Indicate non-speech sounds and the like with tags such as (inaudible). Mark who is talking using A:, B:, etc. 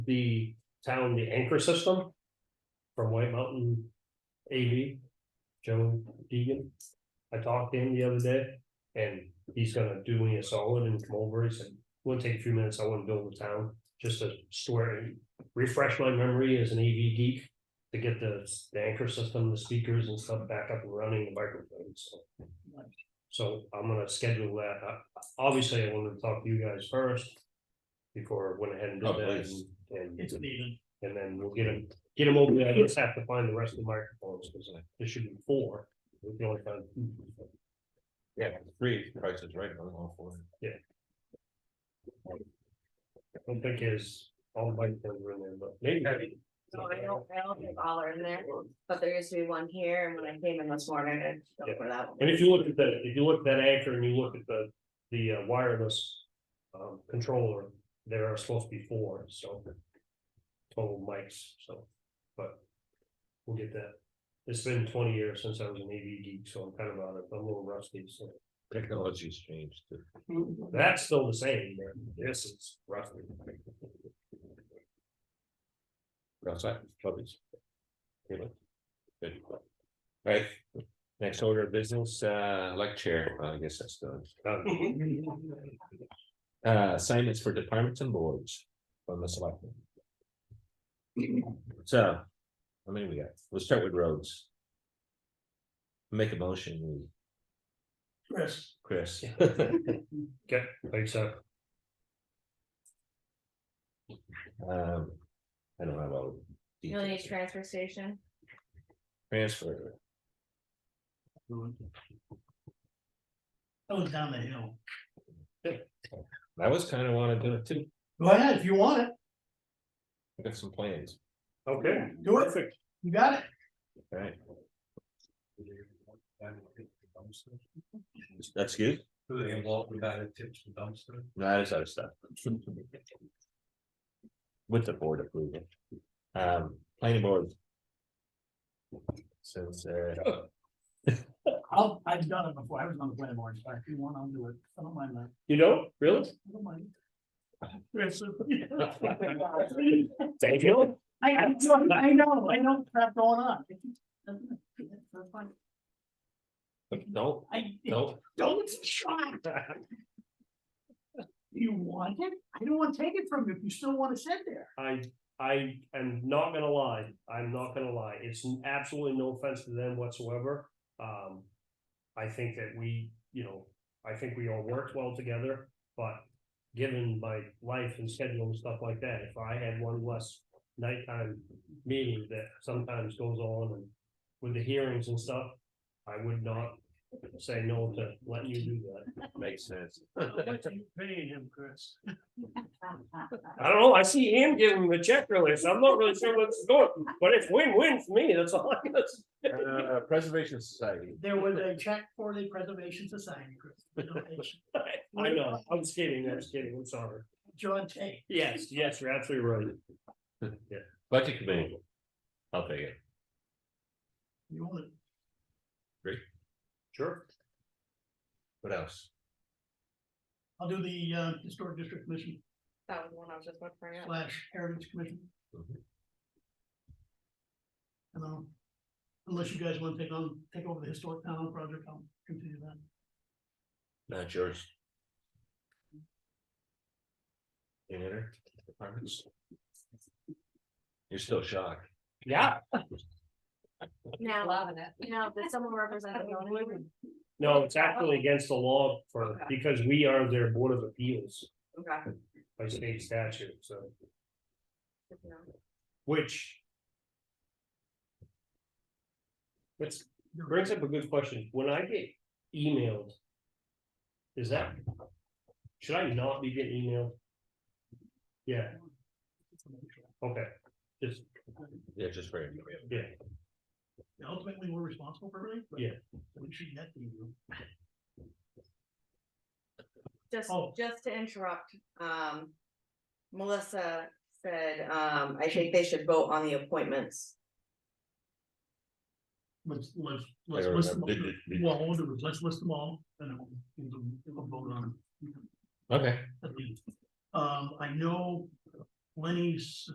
A: the town, the anchor system from White Mountain AV, Joe Deegan. I talked to him the other day and he's gonna do me a solid and come over. He said, we'll take a few minutes. I want to build the town just to store and refresh my memory as an AV geek to get the, the anchor system, the speakers and stuff back up and running, the microphones. so. So I'm gonna schedule that. I- Obviously, I wanted to talk to you guys first before I went ahead and did
B: Oh,
A: that.
B: please.
A: and-
C: It's an even.
A: and then we'll get them, get them over there, I just have to find the rest of the microphones, because there should be four. We can only find two.
B: Yeah, three prices, right? I'm all for it.
A: I don't think is all the microphones are in there, but maybe.
D: No, I don't, I don't think all are in there, but there used to be one here, and when I came in this morning, I
A: Yeah.
D: looked for that one.
A: And if you look at the, if you look at that anchor and you look at the, the uh, wireless. Um, controller, there are supposed to be four, so. Total mics, so, but. We'll get that. It's been twenty years since I was an AV geek, so I'm kind of out of, I'm a little rusty, so.
B: Technology's changed. too.
A: That's still the same, but this is roughly.
B: Outside, puppies. Good. Right, next order of business, uh, elect chair, Well, I guess that's done.
A: done.
C: Mm-hmm.
B: Uh, assignments for departments and boards from the selectmen. So, how many we got? We'll start with roads. Make a motion,
C: Chris,
B: Chris.
A: Okay, thanks, uh,
B: Um, I don't have all. the
D: You'll need
B: details.
D: transfer station,
B: Transfer,
C: that was down the hill.
B: (laughs) I was kind of wanna do it too,
C: Go ahead, if you want it,
B: I got some plans,
A: okay.
C: do it,
A: Perfect.
C: you got it.
B: right? That's good,
E: Who they involved with that, it tips the dumpster.
B: that is other stuff. With the board approval, um, planning board. Since, (laughs) uh,
C: I'll, I've done it before, I was on the planning board, so if you want, I'll do it, I don't mind that,
A: You know, really?
C: I don't mind. Chris,
A: Thank you.
C: I, I know, I know, I know crap going on.
B: no,
C: I,
B: no,
C: don't try, you want it, I don't wanna take it from you, if you still wanna sit there.
A: I, I am not gonna lie, I'm not gonna lie, it's absolutely no offense to them whatsoever. Um, I think that we, you know, I think we all worked well together, but given my life and schedule and stuff like that, if I had one less nighttime meeting that sometimes goes on and with the hearings and stuff, I would not say no to letting you do that.
B: makes sense.
A: (laughs)
C: Paying him, Chris.
A: I don't know, I see him giving him a check earlier, so I'm not really sure what's going, but it's win-win for me, that's all I can say.
B: Uh, Preservation Society,
C: There was a check for the Preservation Society, Chris.
A: (laughs) I know, I was kidding, I was kidding, I'm sorry.
C: John Tate.
A: Yes, yes, you're absolutely right.
B: budget committee. I'll take it,
C: You want it?
A: Sure.
B: what else?
C: I'll do the uh, Historic District Commission
D: that was the one I was just looking for. yeah.
C: slash Heritage Commission.
B: Mhm.
C: And I'll- unless you guys want to take on, take over the Historic Town Hall project, I'll continue that.
B: Not yours. Any other departments? You're still shocked.
A: Yeah.
D: Now,
F: Loving it.
D: now, did someone represent (laughs) the zoning?
A: No, it's actually against the law for, because we are their board of appeals
D: Okay.
A: by state statute, so,
D: good to know.
A: which. Which brings up a good question, when I get emailed. Is that? Should I not be getting emailed? Yeah, okay, just,
B: Yeah, just for you.
A: yeah,
C: And Ultimately, we're responsible for everything. but
A: Yeah.
C: We should get the,
D: Just,
C: Oh.
D: just to interrupt, um, Melissa said, um, I think they should vote on the appointments.
C: let's, let's, let's
B: don't
C: list them. all.
B: remember. Did- did- did-
C: Well, we'll do it. let's list them all and then we'll, we'll we'll vote on them.
B: Okay.
C: at least. Um, I know Lenny's